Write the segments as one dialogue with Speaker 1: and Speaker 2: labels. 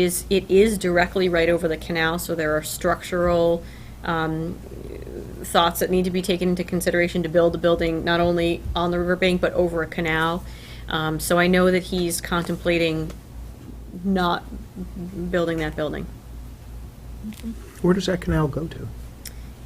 Speaker 1: is, it is directly right over the canal, so there are structural um, thoughts that need to be taken into consideration to build a building not only on the riverbank but over a canal. Um, So I know that he's contemplating not building that building.
Speaker 2: Where does that canal go to?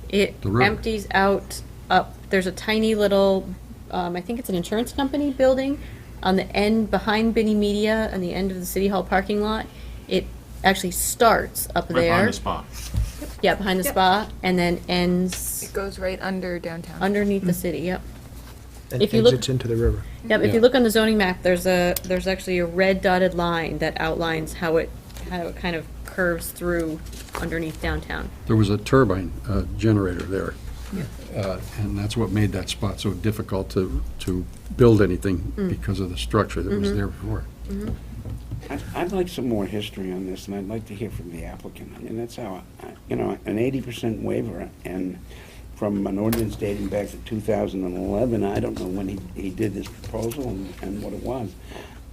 Speaker 1: It
Speaker 3: The river.
Speaker 1: empties out up, there's a tiny little, um, I think it's an insurance company building on the end, behind Benny Media, on the end of the City Hall parking lot. It actually starts up there.
Speaker 4: Right behind the spa.
Speaker 1: Yeah, behind the
Speaker 5: Yep.
Speaker 1: spa, and then ends
Speaker 5: It goes right under downtown.
Speaker 1: underneath the city, yep.
Speaker 2: And
Speaker 1: If you look-
Speaker 2: exits into the river.
Speaker 1: Yep, if you
Speaker 4: Yeah.
Speaker 1: look on the zoning map, there's a, there's actually a red dotted line that outlines how it, how it kind of curves through underneath downtown.
Speaker 3: There was a turbine uh, generator there. Uh, And that's what made that spot so difficult to, to build anything
Speaker 6: Mm.
Speaker 3: because of the structure that
Speaker 6: Mm-hmm.
Speaker 3: was there before.
Speaker 6: I- I'd like some more history on this, and I'd like to hear from the applicant. I mean, that's how, I- you know, an eighty percent waiver, and from an ordinance dating back to two thousand and eleven, I don't know when he, he did this proposal and, and what it was.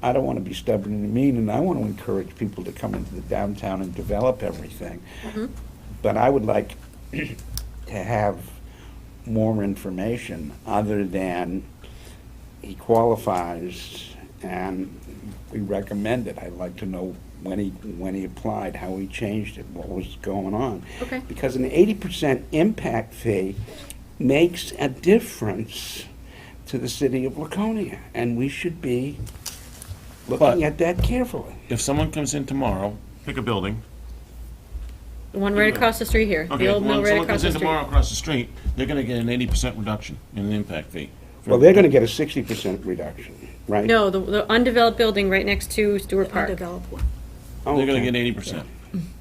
Speaker 6: I don't want to be stubborn and mean, and I want to encourage people to come into the downtown and develop everything. But I would like to have more information other than he qualifies and we recommend it. I'd like to know when he, when he applied, how he changed it, what was going on.
Speaker 1: Okay.
Speaker 6: Because an eighty percent impact fee makes a difference to the city of Laconia, and we should be
Speaker 4: But-
Speaker 6: looking at that carefully.
Speaker 7: If someone comes in tomorrow,
Speaker 4: Pick a building.
Speaker 1: The one right across the street here,
Speaker 7: okay,
Speaker 1: the old mill
Speaker 7: when
Speaker 1: right
Speaker 7: someone
Speaker 1: across
Speaker 7: comes
Speaker 1: the
Speaker 7: in
Speaker 1: street.
Speaker 7: tomorrow across the street, they're gonna get an eighty percent reduction in the impact fee.
Speaker 6: Well, they're gonna get a sixty percent reduction, right?
Speaker 1: No, the, the undeveloped building right next to Stewart Park.
Speaker 7: They're gonna get eighty percent,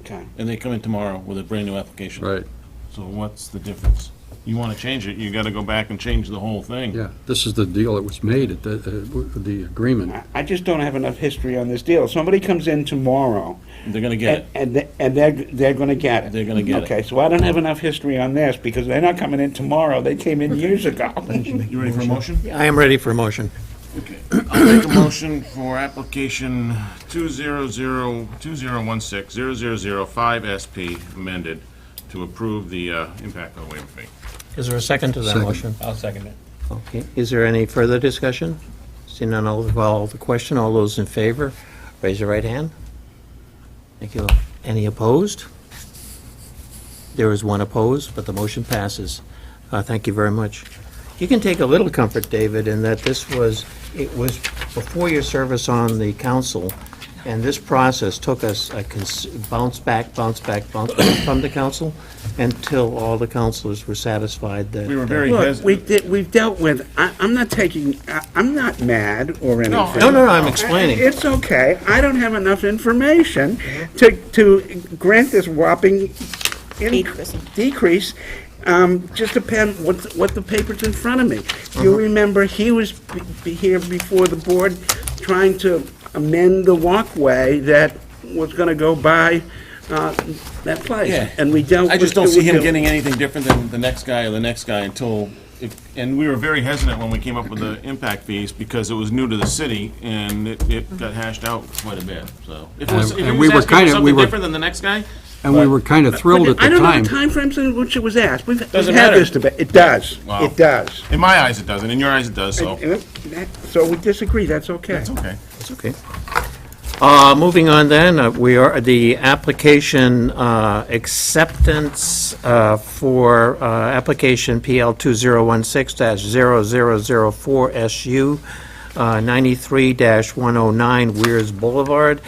Speaker 6: Okay.
Speaker 7: and they come in tomorrow with a brand-new application.
Speaker 3: Right,
Speaker 7: So what's the difference? You wanna change it, you gotta go back and change the whole thing.
Speaker 3: yeah. This is the deal that was made at the, uh, the agreement.
Speaker 6: I- I just don't have enough history on this deal. Somebody comes in tomorrow,
Speaker 7: They're gonna get it.
Speaker 6: and- And, they- and they're, they're gonna get it.
Speaker 7: They're gonna get it.
Speaker 6: Okay, so I don't have enough history on this, because they're not coming in tomorrow, they came in years ago.
Speaker 7: You ready for a motion?
Speaker 2: I am ready for a motion.
Speaker 7: Okay. I'll make a motion for application two zero zero, two zero one six, zero zero zero five SP amended to approve the, uh, impact of the waiver fee.
Speaker 8: Is there a second to that
Speaker 3: Second.
Speaker 8: motion?
Speaker 4: I'll second it.
Speaker 8: Okay, is there any further discussion? Seeing none, I'll call the question. All those in favor, raise your right hand. Thank you. Any opposed? There is one opposed, but the motion passes. Uh, Thank you very much. You can take a little comfort, David, in that this was, it was before your service on the council, and this process took us a cons- bounce back, bounce back, bounce back from the council until all the councilors were satisfied that...
Speaker 7: We were very
Speaker 6: Look,
Speaker 7: hesitant.
Speaker 6: we did, we've dealt with, I, I'm not taking, I, I'm not mad or anything.
Speaker 8: No, no, no, I'm explaining.
Speaker 6: It's okay, I don't have enough information to, to grant this whopping in- decrease, um, just depend what, what the paper's in front of me.
Speaker 7: Mm-hmm.
Speaker 6: You remember, he was b- b- here before the board trying to amend the walkway that was gonna go by, uh, that place.
Speaker 7: Yeah.
Speaker 6: And we dealt with.
Speaker 7: I just don't see him
Speaker 6: with-
Speaker 7: getting anything different than the next guy or the next guy until, if- and we were very hesitant when we came up with the impact fees because it was new to the city and it, it got hashed out quite a bit, so. If it was, if
Speaker 3: And-
Speaker 7: he
Speaker 3: and we
Speaker 7: was
Speaker 3: were
Speaker 7: asking for
Speaker 3: kinda- we
Speaker 7: something
Speaker 3: were-
Speaker 7: different than the next guy,
Speaker 3: And we were kind of thrilled at
Speaker 6: I
Speaker 3: the
Speaker 6: don't know the
Speaker 3: time.
Speaker 6: timeframes in which it was asked. We've we've
Speaker 7: Doesn't
Speaker 6: had
Speaker 7: matter.
Speaker 6: this debate. It does.
Speaker 7: Wow.
Speaker 6: It does.
Speaker 7: in my eyes it doesn't, in your eyes it does, so.
Speaker 6: And that- So we disagree. That's okay.
Speaker 7: It's okay.
Speaker 8: Okay. Uh, Moving on then, uh, we are, the application uh, acceptance uh, for uh, application PL 2016-0004SU, uh, 93-109 Weirs Boulevard,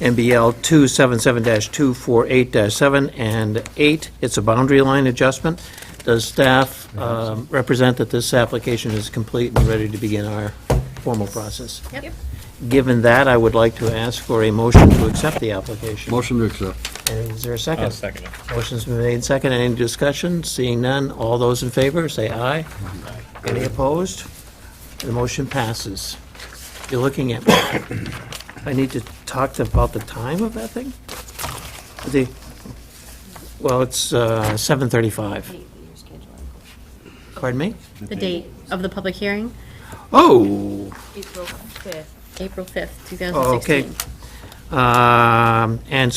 Speaker 8: NBL 277-248-7 and 8. It's a boundary line adjustment. Does staff um, represent that this application is complete and ready to begin our formal process? Given that, I would like to ask for a motion to accept the application.
Speaker 3: Motion to accept.
Speaker 8: And Is there a 2nd
Speaker 4: I'll second it.
Speaker 8: Motion's been made second. Any discussion? Seeing none, all those in favor, say aye. Any opposed? The motion passes. You're looking at me. I need to talk to- about the time of that thing? The, well, it's uh, 7:35. Pardon me?
Speaker 1: The date of the public hearing,
Speaker 8: Oh,
Speaker 5: April 5th.
Speaker 1: Oh, April 5th, 2016.
Speaker 8: okay. Um, And